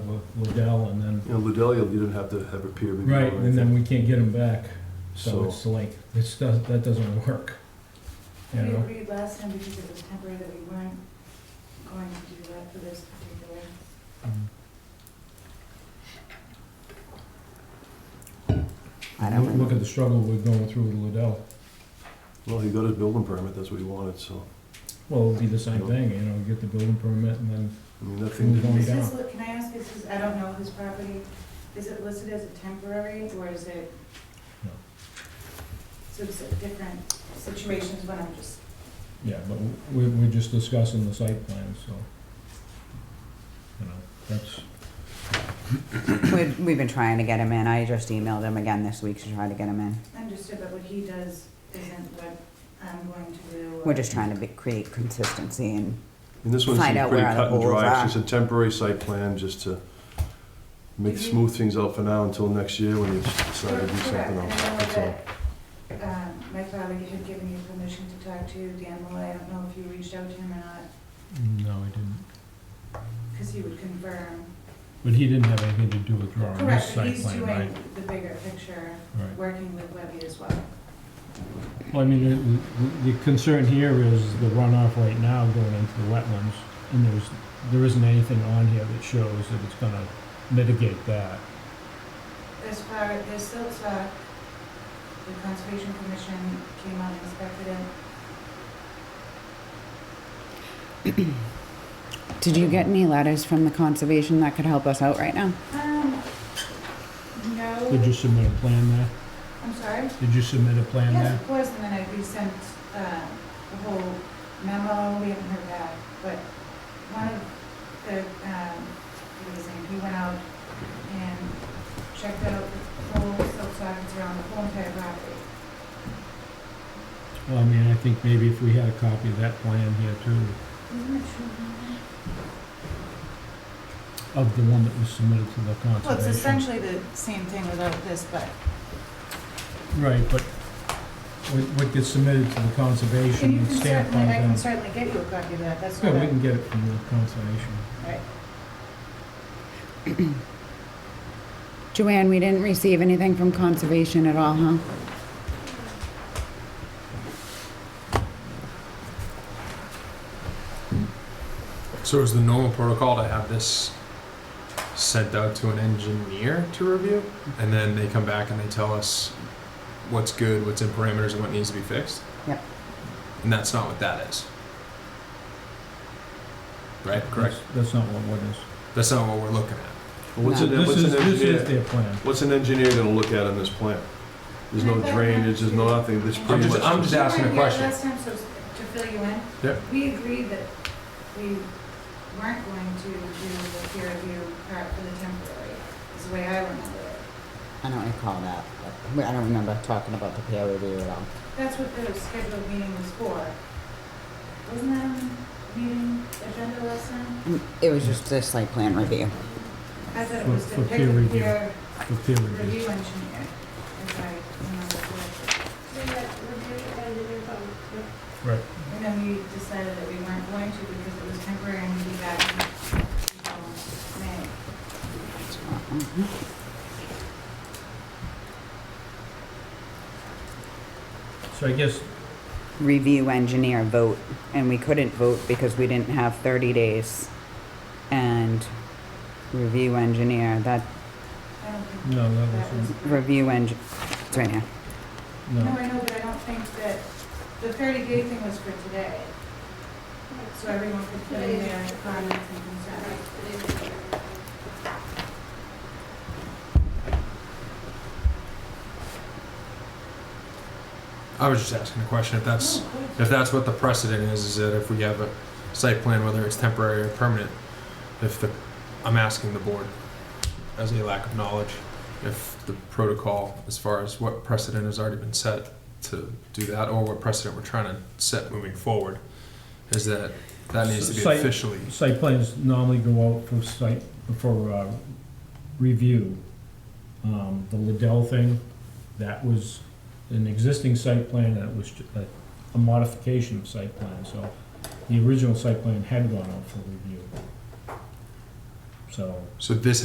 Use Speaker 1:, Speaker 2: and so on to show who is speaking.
Speaker 1: Liddell, and then,
Speaker 2: You know, Liddell, you didn't have to have a peer review.
Speaker 1: right, and then we can't get them back, so
Speaker 2: So,
Speaker 1: it's like, it's, does- that doesn't work. You
Speaker 3: We
Speaker 1: know,
Speaker 3: agreed last time because it was temporary that we weren't going to do that for this particular.
Speaker 4: I don't
Speaker 1: Look- look at the struggle we're going through with Liddell.
Speaker 2: well, he got his building permit, that's what he wanted, so,
Speaker 1: Well, it'll be the same thing, you know, get the building permit and then,
Speaker 2: I mean, that thing
Speaker 1: Move on.
Speaker 2: didn't
Speaker 3: Is
Speaker 2: meet.
Speaker 3: this, can I ask, is this, I don't know this property, is it listed as a temporary or is it?
Speaker 1: No.
Speaker 3: So it's a different situations when I'm just,
Speaker 1: yeah, but we, we're just discussing the site plan, so. You know, that's,
Speaker 4: We've, we've been trying to get him in. I just emailed him again this week to try to get him in.
Speaker 3: understood, but what he does isn't what I'm going to do. or-
Speaker 4: We're just trying to be, create consistency and,
Speaker 2: And this one
Speaker 4: Find
Speaker 2: seemed
Speaker 4: out
Speaker 2: pretty
Speaker 4: where the
Speaker 2: cut and
Speaker 4: holes
Speaker 2: dry,
Speaker 4: are.
Speaker 2: it's just a temporary site plan, just to make,
Speaker 3: Did you-
Speaker 2: smooth things out for now until next year when you decide to do
Speaker 3: Mm-hmm. Correct,
Speaker 2: something
Speaker 3: and I
Speaker 2: else,
Speaker 3: know
Speaker 2: that's all.
Speaker 3: that, um, My father had given you permission to talk to Dan Malloy, I don't know if you reached out to him or not,
Speaker 1: no, I didn't.
Speaker 3: because he would confirm.
Speaker 1: But he didn't have anything to do with drawing this
Speaker 3: Correct, but
Speaker 1: site
Speaker 3: he's
Speaker 1: plan, right?
Speaker 3: doing the bigger picture,
Speaker 1: Right.
Speaker 3: working with Webby as well.
Speaker 1: Well, I mean, the- the, the concern here is the runoff right now going into the wetlands, and there's, there isn't anything on here that shows that it's gonna mitigate that.
Speaker 3: As far, there's still talk, the Conservation Commission came out and inspected it.
Speaker 4: did you get any letters from the conservation that could help us out right now?
Speaker 3: Um,
Speaker 1: Did
Speaker 3: no,
Speaker 1: you submit a plan there?
Speaker 3: I'm sorry?
Speaker 1: Did you submit a plan
Speaker 3: Yes,
Speaker 1: there?
Speaker 3: of course, and then I resent uh, the whole memo, we haven't heard back, but one of the, um, what was his name, he went out and checked out the whole silk sockets around the whole entire property.
Speaker 1: Well, I mean, I think maybe if we had a copy of that plan here too,
Speaker 3: Isn't it true?
Speaker 1: of the one that was submitted to the conservation.
Speaker 3: Well, it's essentially the same thing without this, but
Speaker 1: Right, but what, what gets submitted to the
Speaker 3: and
Speaker 1: conservation
Speaker 3: you
Speaker 1: and
Speaker 3: can
Speaker 1: stamped
Speaker 3: certainly,
Speaker 1: on
Speaker 3: I can
Speaker 1: them.
Speaker 3: certainly get you a copy of that, that's
Speaker 1: Yeah,
Speaker 3: not
Speaker 1: we
Speaker 3: a,
Speaker 1: can get it from the conservation.
Speaker 3: right.
Speaker 4: Joanne, we didn't receive anything from conservation at all, huh?
Speaker 5: So is the normal protocol to have this sent out to an engineer to review, and then they come back and they tell us what's good, what's in parameters, and what needs to be fixed?
Speaker 4: Yep.
Speaker 5: And that's not what that is. Right, correct?
Speaker 1: That's- That's not what what is.
Speaker 5: That's not what we're looking at.
Speaker 2: Well, What's
Speaker 4: No.
Speaker 2: an,
Speaker 1: This
Speaker 2: what's
Speaker 1: is,
Speaker 2: an
Speaker 1: this is
Speaker 2: engineer,
Speaker 1: their plan.
Speaker 2: what's an engineer gonna look at in this plan? There's no drainage, there's no nothing, there's
Speaker 3: I'm
Speaker 2: pretty
Speaker 5: just-
Speaker 2: much.
Speaker 5: I'm just asking a
Speaker 3: You were here
Speaker 5: question.
Speaker 3: Last time, so to fill you in.
Speaker 5: Yeah.
Speaker 3: We agreed that we weren't going to do the peer review part for the temporary, is the way I remember it.
Speaker 4: I don't recall that. but I don't remember talking about the peer review at all.
Speaker 3: That's what the scheduled meeting was for. Wasn't that on the meeting agenda last time?
Speaker 4: It was just the site plan review.
Speaker 3: I thought it
Speaker 1: For-
Speaker 3: was to
Speaker 1: for
Speaker 3: pick
Speaker 1: peer
Speaker 3: a
Speaker 1: review.
Speaker 3: peer
Speaker 1: for peer review.
Speaker 3: review engineer, if I remember correctly.
Speaker 1: Right.
Speaker 3: And then we decided that we weren't going to because it was temporary and we'd be back until May.
Speaker 4: Mm-hmm.
Speaker 1: So I guess,
Speaker 4: Review engineer vote, and we couldn't vote because we didn't have thirty days. And review engineer, that,
Speaker 3: I don't think
Speaker 1: no, that
Speaker 3: that was.
Speaker 1: wasn't,
Speaker 4: review eng, it's right here.
Speaker 3: No,
Speaker 1: no.
Speaker 3: I know, but I don't think that, the thirty day thing was for today, so everyone could put in their comments and concerns.
Speaker 5: I was just asking a question, if that's, if that's what the precedent is, is that if we have a site plan, whether it's temporary or permanent, if the, I'm asking the board, as a lack of knowledge, if the protocol, as far as what precedent has already been set to do that, or what precedent we're trying to set moving forward, is that that needs to be
Speaker 1: Site-
Speaker 5: officially,
Speaker 1: Site plans normally go out for site, for, uh, review. Um, the Liddell thing, that was an existing site plan, that was ju- a, a modification of site plan, so the original site plan had gone out for review. So,
Speaker 5: so this